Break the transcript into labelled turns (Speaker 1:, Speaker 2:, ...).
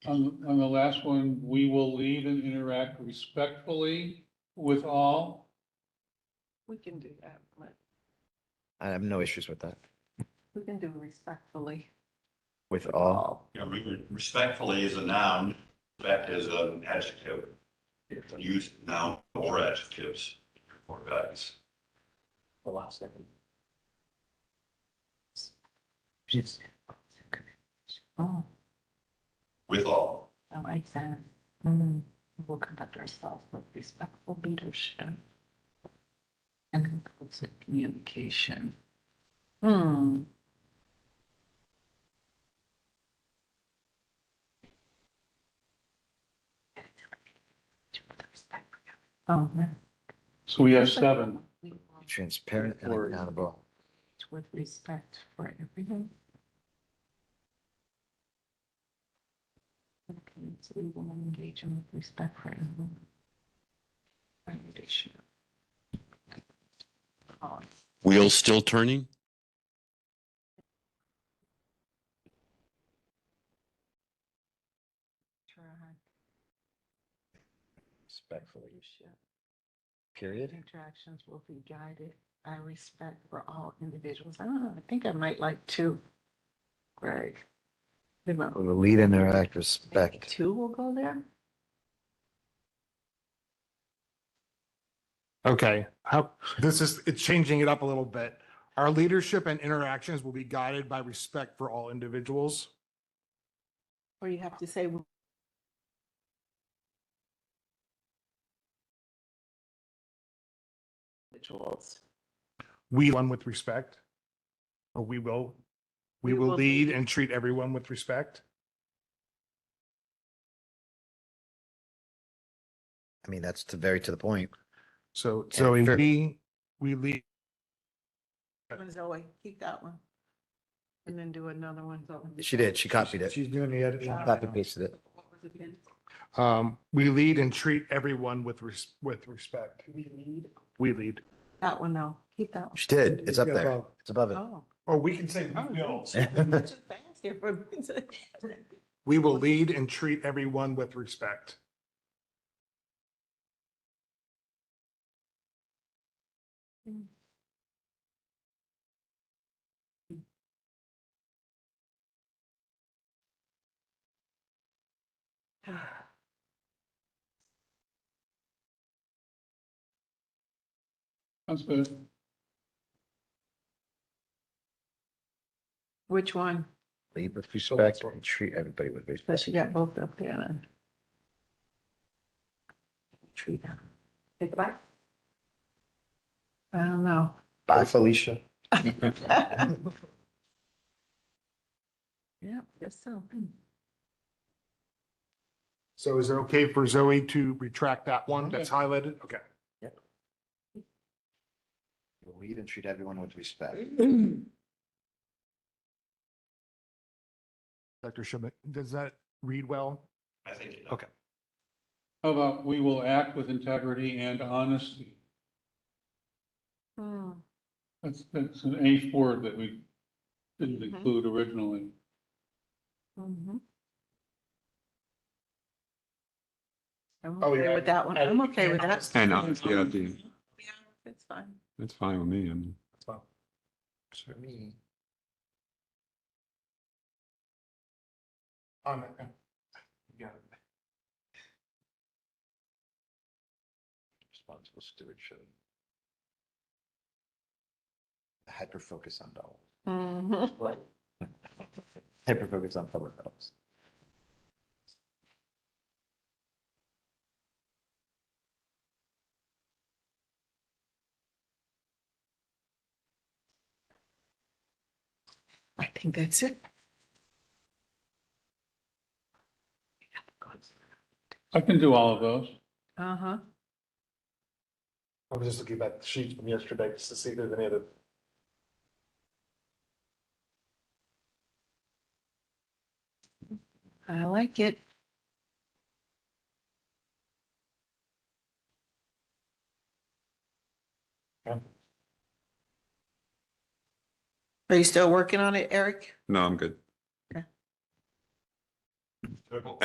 Speaker 1: on, on the last one, we will lead and interact respectfully with all.
Speaker 2: We can do that, but
Speaker 3: I have no issues with that,
Speaker 2: we can do respectfully.
Speaker 3: with all.
Speaker 4: You know, re- respectfully is a noun, respect is an adjective. It's used noun or adjectives or values.
Speaker 5: the last second.
Speaker 2: Oh,
Speaker 4: with all.
Speaker 2: I like that. Mm, We'll conduct ourselves with respectful leadership. And inclusive communication. Hmm. Oh, man.
Speaker 1: So we have seven.
Speaker 2: We will
Speaker 3: transparent and
Speaker 1: Or-
Speaker 3: accountable.
Speaker 2: act With respect for everyone. Okay, so we will engage in with respect for everyone. Foundation. Oh,
Speaker 6: Wheels still turning?
Speaker 2: try
Speaker 3: Respectfully,
Speaker 2: leadership.
Speaker 3: period.
Speaker 2: Interactions will be guided by respect for all individuals. Ah, I think I might like two. Greg. They might-
Speaker 3: We'll lead and interact
Speaker 2: maybe
Speaker 3: respect.
Speaker 2: Two will go there?
Speaker 7: Okay, how, this is, it's changing it up a little bit. Our leadership and interactions will be guided by respect for all individuals.
Speaker 2: Or you have to say individuals.
Speaker 7: We one with respect. Or we will, we
Speaker 2: We
Speaker 7: will
Speaker 2: will
Speaker 7: lead and treat everyone with respect.
Speaker 3: I mean, that's to very to the point.
Speaker 7: So,
Speaker 3: Yeah,
Speaker 7: so
Speaker 3: sure.
Speaker 7: we, we lead,
Speaker 2: Zoe, keep that one. And then do another one. Zoe.
Speaker 3: She did, she copied it.
Speaker 7: she's doing the editing.
Speaker 3: Copy pasted it.
Speaker 2: What was it again?
Speaker 7: Um, we lead and treat everyone with res- with respect.
Speaker 2: We need.
Speaker 7: We lead.
Speaker 2: That one, no, keep that one.
Speaker 3: She did, it's up
Speaker 7: Yeah,
Speaker 3: there,
Speaker 7: above.
Speaker 3: it's above
Speaker 2: Oh.
Speaker 7: Or we can say
Speaker 2: Oh,
Speaker 7: we will.
Speaker 3: it.
Speaker 2: Too fast here for me to-
Speaker 7: We will lead and treat everyone with respect.
Speaker 1: That's good.
Speaker 2: Which one?
Speaker 3: Lead with respect and treat everybody with respect.
Speaker 2: Plus you got both up there then. Tree down. Take it back? I don't know.
Speaker 3: Bye, Felicia.
Speaker 2: Yeah, guess so.
Speaker 7: So is it okay for Zoe to retract that one
Speaker 1: Okay.
Speaker 7: that's highlighted? Okay.
Speaker 3: Lead and treat everyone with respect.
Speaker 7: Dr. Schmidt, does that read well?
Speaker 4: I think. it-
Speaker 7: Okay.
Speaker 1: How about we will act with integrity and honesty?
Speaker 2: Hmm.
Speaker 1: That's, that's an eighth word that we didn't
Speaker 2: Mhm.
Speaker 1: include originally.
Speaker 2: Mhm. I'm
Speaker 7: Oh,
Speaker 2: okay
Speaker 7: yeah,
Speaker 2: with that one. I'm okay with that.
Speaker 6: I know, it's the idea.
Speaker 2: Yeah, It's fine.
Speaker 6: That's fine with me. I mean,
Speaker 3: For me.
Speaker 7: Um, yeah.
Speaker 3: Responsible stewardship. Hyper focus on dollars. Mm-hmm.
Speaker 2: Mhm.
Speaker 3: Hyper focus on public health.
Speaker 2: I think that's it.
Speaker 1: I can do all of those.
Speaker 2: Uh-huh.
Speaker 7: I was just looking back at the sheet from yesterday just to see if there's any other.
Speaker 2: I like it. Are you still working on it, Eric?
Speaker 6: no, I'm good.